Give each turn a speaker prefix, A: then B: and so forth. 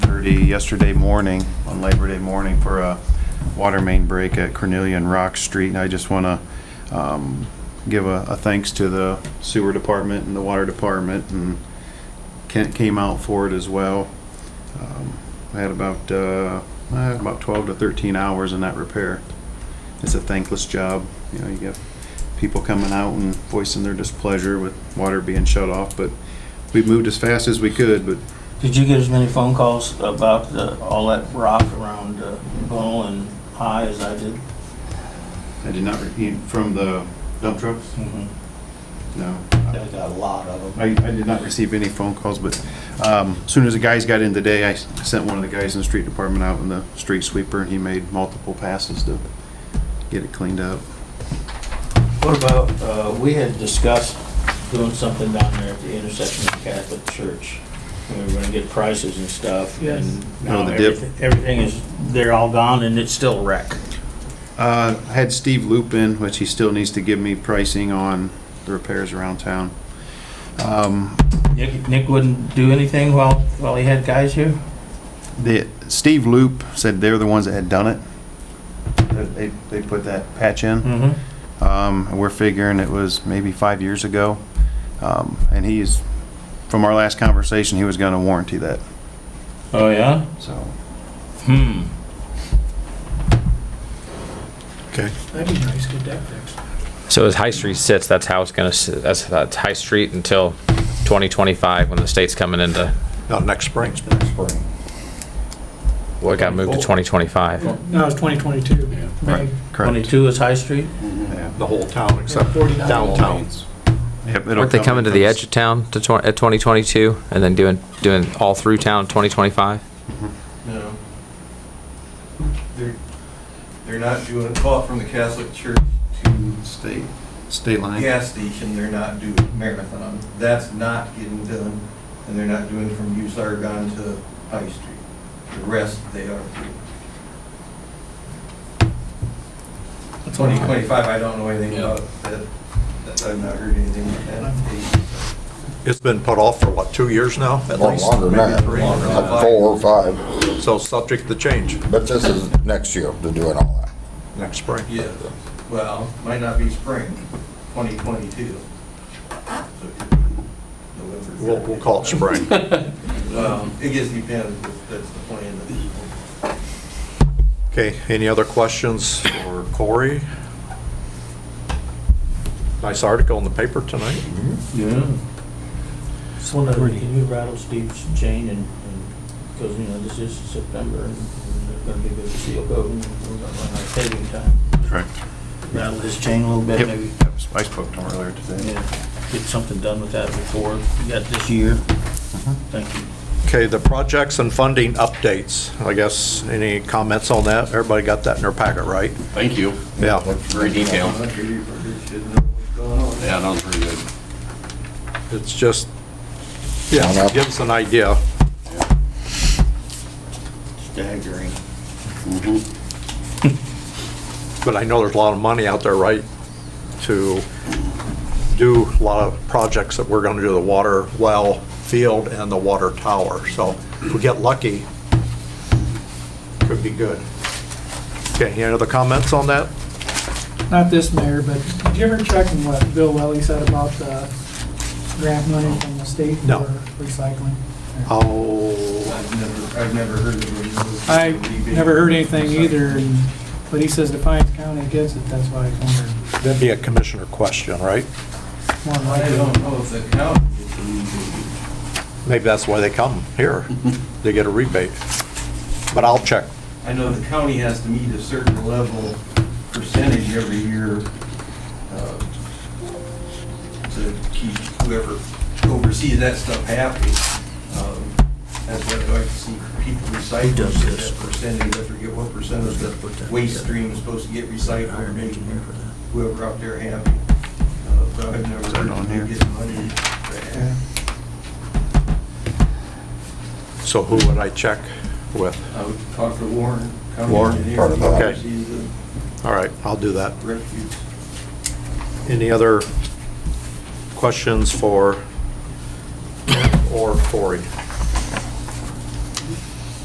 A: Liberty yesterday morning, on Labor Day morning, for a water main break at Cornelia and Rock Street. And I just want to give a a thanks to the sewer department and the water department, and Kent came out for it as well. Um, I had about, uh, I had about 12 to 13 hours in that repair. It's a thankless job, you know, you get people coming out and voicing their displeasure with water being shut off, but we moved as fast as we could, but
B: Did you get as many phone calls about the, all that rock around uh, Bull and High as I did?
A: I did not repeat from the dump trucks. No,
B: Mm-hmm. I got a lot of them.
A: I, I did not receive any phone calls, but um, as soon as the guys got in today, I s- sent one of the guys in the street department out in the street sweeper, and he made multiple passes to get it cleaned up.
B: What about, uh, we had discussed doing something down there at the intersection of Catholic Church. We were gonna get prices and stuff.
C: Yes.
B: and
A: Oh,
B: now
A: the dip.
B: everything- Everything is, they're all gone and it's still a wreck.
A: Uh, I had Steve Lupin, which he still needs to give me pricing on the repairs around town. Um,
B: Nick, Nick wouldn't do anything while, while he had guys here?
A: The, Steve Loop said they're the ones that had done it. That They, they put that patch in.
B: Mm-hmm.
A: Um, and we're figuring it was maybe five years ago. Um, and he is, from our last conversation, he was gonna warranty that,
B: Oh, yeah?
A: so.
B: Hmm.
C: That'd be nice, get that fixed.
D: So as High Street sits, that's how it's gonna, s- that's, that's High Street until 2025, when the state's coming into,
E: Not next spring.
D: well, it got moved to 2025.
C: No, it's 2022. May.
A: Correct.
B: Twenty-two is High Street?
A: Yeah.
E: The whole town except
C: 49
E: downtown.
A: Yep, it'll
D: Weren't they
A: come-
D: coming to the edge of town to, twen- at 2022, and then doing, doing all through town 2025?
B: No.
F: They're, they're not doing, call it from the Catholic Church to
A: State, state line.
F: gas station, they're not doing Marathon. That's not getting done, and they're not doing from Use Argon to High Street. The rest, they are. Twenty twenty-five, I don't know anything about that, That- I've not heard anything about that.
E: It's been put off for what, two years now at
G: Well,
E: least?
G: longer than that,
F: Maybe three.
G: like four or five,
E: So subject to change
G: but this is next year to doing all that.
E: next spring.
F: Yeah, well, might not be spring, twenty twenty-two.
E: We'll, we'll call it spring.
F: Um, It gets depends, if that's the plan of the people.
E: Okay, any other questions for Corey? Nice article in the paper tonight.
B: Yeah. Just wonder, can you rattle Steve's chain and, because, you know, this is September and there's gonna be a bit of seal coating and we're gonna run out of paving time.
A: Correct.
B: Rattle his chain a little bit,
A: Yep.
B: maybe,
A: I spoke to him earlier today.
B: yeah, get something done with that before you got this year. Thank you.
E: Okay, the projects and funding updates. I guess, any comments on that? Everybody got that in their packet, right?
H: Thank you.
E: Yeah,
H: Very detailed.
F: Should know what's going on.
H: Yeah, that was pretty good.
E: it's just, yeah, it gives an idea.
B: Staggering.
E: Mm-hmm. But I know there's a lot of money out there, right, to do a lot of projects that we're going to do, the water well field and the water tower. So if we get lucky, could be good. Okay, any other comments on that?
C: Not this mayor, but did you ever check on what Bill Welly said about the grant money from the state
E: No.
C: for recycling?
E: Oh,
F: I've never, I've never heard of it.
C: I never heard anything either, and- but he says Defiance County gets it, that's why I wondered.
E: that'd be a commissioner question, right?
C: More than
F: I
C: likely,
F: don't know if the county.
E: Maybe that's why they come here. They get a rebate. But I'll check.
F: I know the county has to meet a certain level percentage every year uh, to keep whoever oversees that stuff happy. Um, That's what I like to see people recycle,
B: does
F: that
B: this?
F: percentage, I forget what percent of the waste stream is supposed to get recycled, and make whoever out there happy. Uh, But I've
A: Is
F: never
A: that
F: heard
A: on
F: of
A: here?
F: them getting money. for that.
E: So who would I check with?
F: I would talk to Warren. county
E: Warren,
F: engineer,
G: part of that.
E: Okay.
F: oversees the
E: All right, I'll do that.
F: refuse.
E: Any other questions for Kent or Corey?